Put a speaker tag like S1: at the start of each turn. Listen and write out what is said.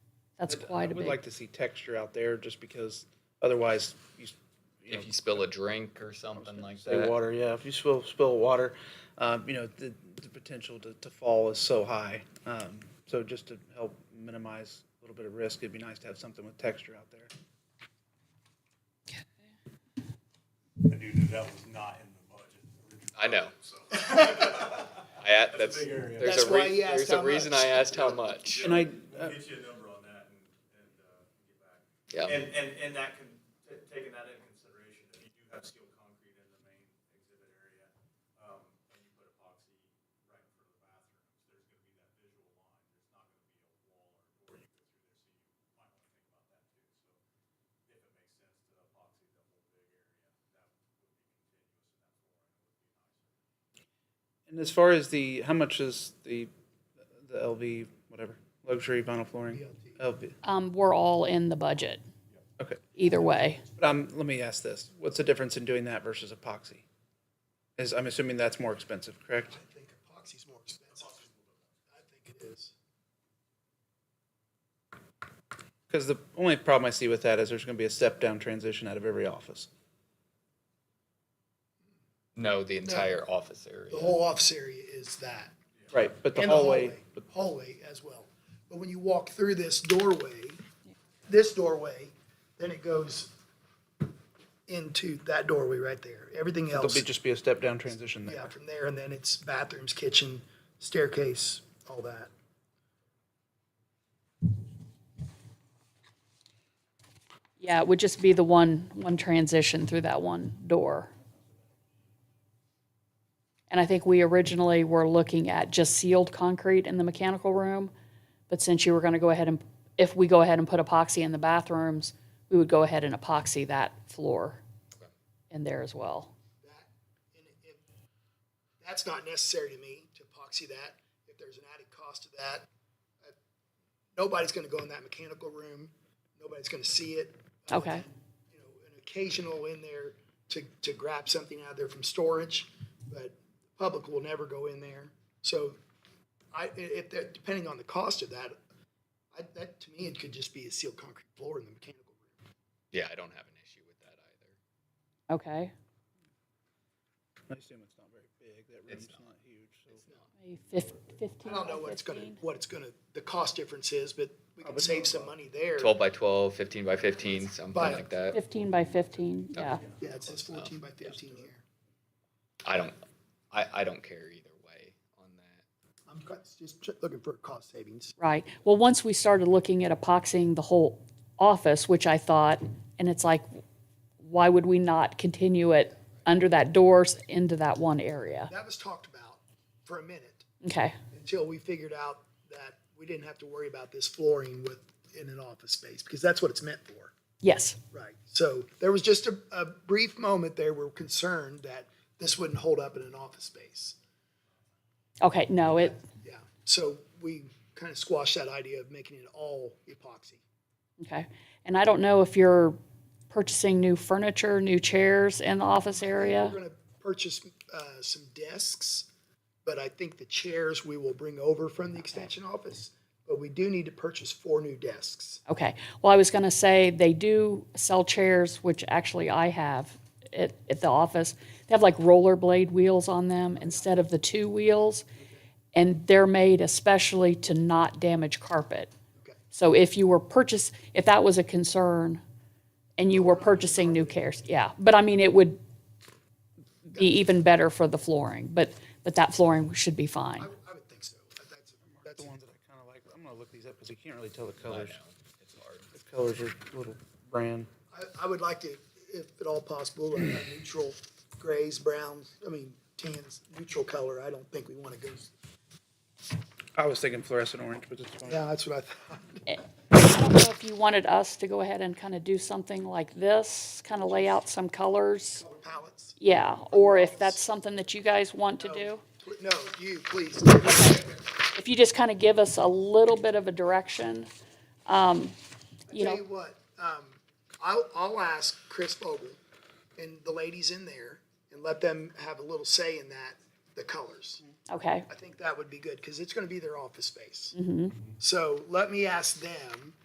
S1: That's quite a
S2: We'd
S1: big.
S2: like to see texture out there just because otherwise you, s- you know,
S3: If you spill a drink or something like
S2: say
S3: that.
S2: water, yeah, if you spill, spill water, um, you know, the, the potential to, to fall is so high. Um, so just to help minimize a little bit of risk, it'd be nice to have something with texture out there.
S4: I do know that was not in the budget. originally,
S3: I know.
S4: so.
S3: I, a- that's,
S4: big area.
S3: there's
S2: That's
S3: a,
S2: why
S3: re-
S2: he asked
S3: there's a
S2: how
S3: reason
S2: much.
S3: I asked how much.
S2: And I,
S4: We'll
S2: uh,
S4: get you a number on that and, and, uh, get back.
S3: Yeah.
S4: And, and, and that can, t- taking that into consideration, if you do have skilled concrete in the main exhibit area, um, and you put epoxy right in front of the bathrooms, there's gonna be that visual line, there's not gonna be a wall or door you go through there, so you might wanna think about that too, so if it makes sense to epoxy the whole big area, that would be continuous
S2: and
S4: and that flooring would be nicer.
S2: as far as the, how much is the, the LV, whatever, luxury vinyl flooring? LV.
S1: Um, we're all in the budget.
S2: Okay.
S1: Either way.
S2: But um, let me ask this, what's the difference in doing that versus epoxy? Is, I'm assuming that's more expensive, correct?
S5: I think epoxy's more expensive. I think it is.
S2: Because the only problem I see with that is there's going to be a step down transition out of every office.
S3: No, the entire office area.
S5: The whole office area is that.
S2: Right, but the
S5: and
S2: hallway, but
S5: Hallway as well. But when you walk through this doorway, this doorway, then it goes into that doorway right there. Everything
S2: there'll
S5: else,
S2: be, just be a step down transition there.
S5: yeah, from there, and then it's bathrooms, kitchen, staircase, all that.
S1: Yeah, it would just be the one, one transition through that one door. And I think we originally were looking at just sealed concrete in the mechanical room, but since you were gonna go ahead and, if we go ahead and put epoxy in the bathrooms, we would go ahead and epoxy that floor in there as well.
S5: And it- it- That's not necessary to me to epoxy that. If there's an added cost to that, I- nobody's gonna go in that mechanical room. Nobody's gonna see it. other
S1: Okay.
S5: than, You know, an occasional in there to, to grab something out of there from storage, but the public will never go in there. So I, i- if, that- depending on the cost of that, I, that, to me, it could just be a sealed concrete floor in the mechanical room.
S3: Yeah, I don't have an issue with that either.
S1: Okay,
S2: I assume it's not very big, that room's not huge, so.
S1: maybe fif- fifteen
S5: I don't know
S1: by
S5: what it's gonna,
S1: 15?
S5: what it's gonna, the cost difference is, but we can save some money there.
S3: 12 by 12, 15 by 15, something
S5: By-
S3: like that.
S1: Fifteen by fifteen, yeah.
S5: Yeah, it says fourteen by fifteen here.
S3: I don't, I, I don't care either way on that.
S5: I'm cu- just ch- looking for cost savings.
S1: Right. Well, once we started looking at epoxying the whole office, which I thought, and it's like, why would we not continue it under that doors into that one area?
S5: That was talked about for a minute
S1: Okay.
S5: until we figured out that we didn't have to worry about this flooring with, in an office space, because that's what it's meant for.
S1: Yes.
S5: Right. So there was just a, a brief moment there we're concerned that this wouldn't hold up in an office space.
S1: Okay. No, it,
S5: Yeah. So we kind of squashed that idea of making it all epoxy.
S1: okay. And I don't know if you're purchasing new furniture, new chairs in the office area.
S5: We're gonna purchase uh, some desks, but I think the chairs we will bring over from the extension office. But we do need to purchase four new desks.
S1: Okay. Well, I was going to say they do sell chairs, which actually I have at, at the office. They have like rollerblade wheels on them instead of the two wheels. And they're made especially to not damage carpet.
S5: Okay.
S1: So if you were purchase, if that was a concern and you were purchasing new chairs, yeah. But I mean, it would be even better for the flooring, but, but that flooring should be fine.
S5: I would- I would think so. That's, that's
S2: The ones that I kind of like, I'm gonna look these up because you can't really tell the
S3: I know,
S2: colors.
S3: it's hard.
S2: The colors are a little brand.
S5: I, I would like to, if at all possible, like a neutral grays, browns, I mean, tans, neutral color. I don't think we want to go.
S2: I was thinking fluorescent orange, but it's fine.
S5: Yeah, that's what I thought.
S1: I don't know if you wanted us to go ahead and kind of do something like this, kind of lay out some colors.
S5: Palettes.
S1: Yeah, or if that's something that you guys want to do.
S5: Pl- No, you, please.
S1: If you just kind of give us a little bit of a direction, um, you
S5: Tell you
S1: know,
S5: what, um, I'll, I'll ask Chris Vogel and the ladies in there and let them have a little say in that, the colors.
S1: okay, Mm-hmm.
S5: I think that would be good, because it's gonna be their office space. So let me ask them